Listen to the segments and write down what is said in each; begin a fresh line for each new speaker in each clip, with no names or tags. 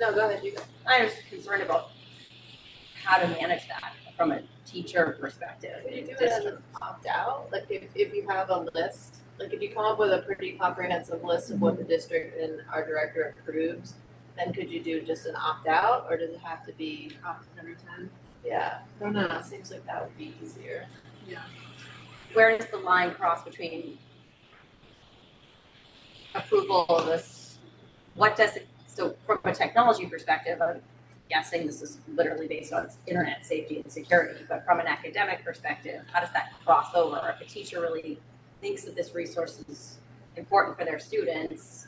No, go ahead, you go.
I was concerned about how to manage that from a teacher perspective.
Could you do it as
District.
an opt-out, like if, if you have a list, like if you come up with a pretty comprehensive list of what the district and our director approves, then could you do just an opt-out, or does it have to be,
opted every time.
yeah,
I don't know.
Uh, it seems like that would be easier.
Where does the line cross between approval of this, what does it, so from a technology perspective, I'm guessing this is literally based on internet safety and security, but from an academic perspective, how does that cross over? If a teacher really thinks that this resource is important for their students,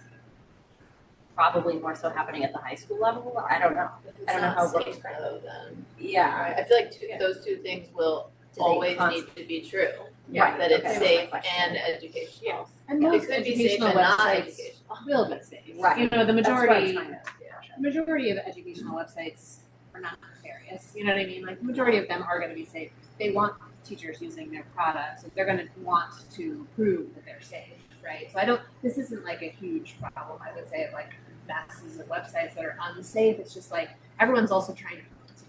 probably more so happening at the high school level, I don't know. I don't know how it works.
It's not safe though then,
Yeah.
I feel like two,
Yeah.
those two things will
Do they
always
const-
need to be true,
Right,
that it's
okay.
safe
Question.
and educational.
And
It
most
could be safe
educational
and not
websites
educational.
will be safe.
Right.
You know, the
That's what I'm
majority,
trying to-
majority of educational websites are not nefarious. You know what I mean? Like, the majority of them are going to be safe. They want teachers using their products. They're going to want to prove that they're safe, right? So I don't. This isn't like a huge problem. I would say of like masses of websites that are unsafe. It's just like everyone's also trying to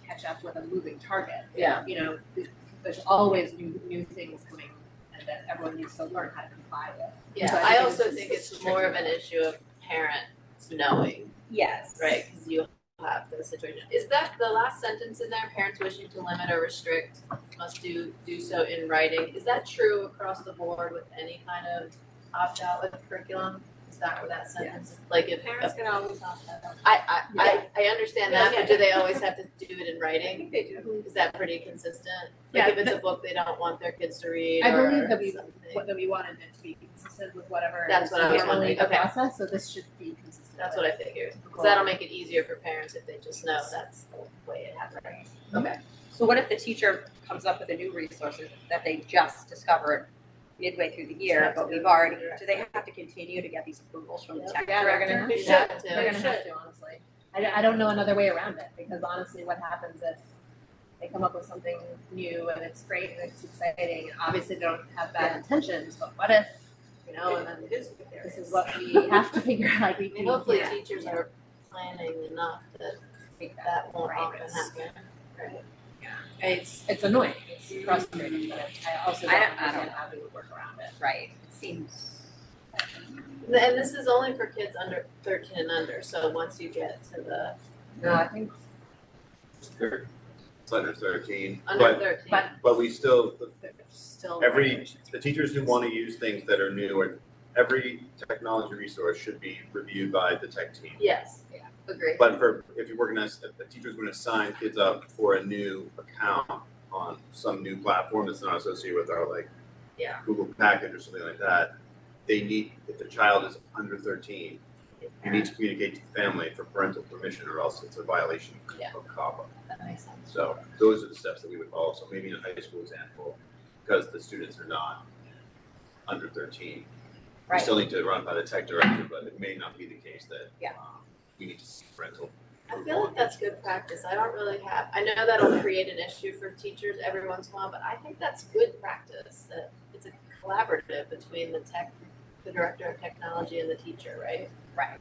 catch up with a moving target
Yeah.
you know, th- there's always new, new things coming and that everyone needs to learn how to comply with.
Yeah,
So I
I
think
also
it's-
think
it's
it's more of an issue of parents knowing
Yes.
Right, because you have the situation. Is that the last sentence in there, parents wishing to limit or restrict must do, do so in writing? Is that true across the board with any kind of opt-out with curriculum? Is that where that sentence, is? like if,
Parents can always opt out.
I, I, I, I understand that,
Yeah.
but do they always have to do it in
I
writing?
think they do.
Is that pretty consistent?
Yeah,
Like if it's a book they don't want their kids to read
I
or
believe that we-
something?
What, that we wanted it to be consistent with whatever.
That's
is
what I was
normally
wondering.
the
Okay.
Process, so this should be consistent.
That's what I figured, because that'll make it easier for parents if they just know that's the way it happens. Okay,
So what if the teacher comes up with a new resource that they just discovered midway through the year, but we've already, do they have to continue to get these approvals from the tech
Yeah, they're gonna-
director?
we
Yeah.
should too.
They're gonna have to, honestly. I don't, I don't know another way around it, because honestly, what happens if they come up with something new and it's great and it's exciting, and obviously they don't have bad intentions, but what if, you know, and then
It is what there
this is what we have to figure out, like, we
I
can.
mean, hopefully
yeah,
teachers are planning enough that
take that.
that won't
Right.
often happen.
It's, it's annoying, it's frustrating, but it's- I also
I
don't
don't- I don't
understand
know.
how we would work around it.
Right, it seems.
And this is only for kids under thirteen and under, so once you get to the
No, I think,
They're- It's under thirteen,
under
but,
thirteen.
but-
but we still,
there's still.
Every-
regulations.
the teachers who wanna use things that are new and every technology resource should be reviewed by the tech team.
Yes, yeah, agree.
But for, if you're working as, if the teacher's gonna sign kids up for a new account on some new platform that's not associated with our like
Yeah.
Google package or something like that, they need, if the child is under thirteen, you need to communicate to the family for parental permission or else it's a violation
Yeah.
of CAPA.
That makes sense.
So those are the steps that we would follow. So maybe in a high school example, because the students are not under thirteen. We
Right.
still need to run by the tech director, but it may not be the case that
Yeah.
um, we need to see parental.
I feel like that's good practice. I don't really have, I know that'll create an issue for teachers every once in a while, but I think that's good practice. That it's a collaborative between the tech, the director of technology and the teacher, right?
Right.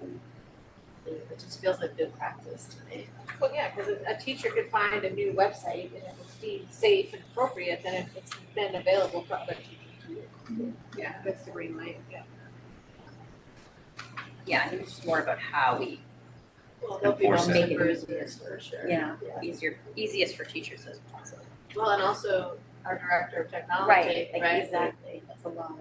It just feels like good practice to me.
Well, yeah, because a teacher could find a new website and it was deemed safe and appropriate, then it- it's then available for other teachers to use.
Yeah, that's the green light.
Yeah, I think it's just more about how we,
Well, there'll be
Enforce
bumps
it.
and bruises for sure.
yeah,
Yeah.
easier, easiest for teachers as possible.
Well, and also our director of technology,
Right,
right?
like, exactly, that's a lot.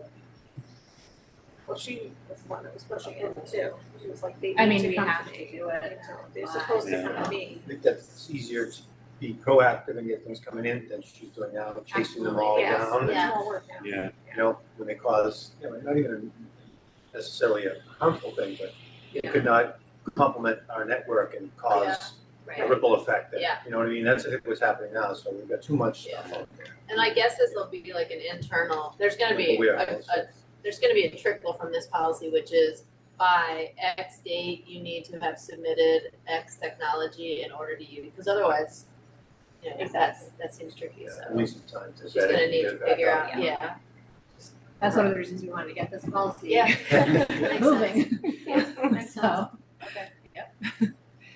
Well, she was the one that was pushing it too. She was like, they
I
need
mean,
to
we
come
have
to
to
me.
do it.
They're supposed to come
Yeah.
to me.
I think that's easier to be proactive and get things coming in than she's doing now, chasing them all
Yeah.
Absolutely, yes.
down. and,
It's more work now.
Yeah,
You know, when they cause, you know, not even necessarily a harmful thing, but it could not complement our network and cause a
Right.
ripple effect that,
Yeah.
you know what I mean? That's what's happening now, so we've got too much
Yeah.
stuff out there.
And I guess this will be like an internal, there's gonna be
We
a,
are
a, there's gonna be a trickle from this policy, which is by X date, you need to have submitted X technology in order to use, because otherwise, you know, that's, that seems tricky,
At
so
least sometimes it's.
she's gonna need to figure
up.
out, yeah.
That's one of the reasons we wanted to get this policy
Yeah.
Yeah.
Makes sense.
moving.
Yeah.
So,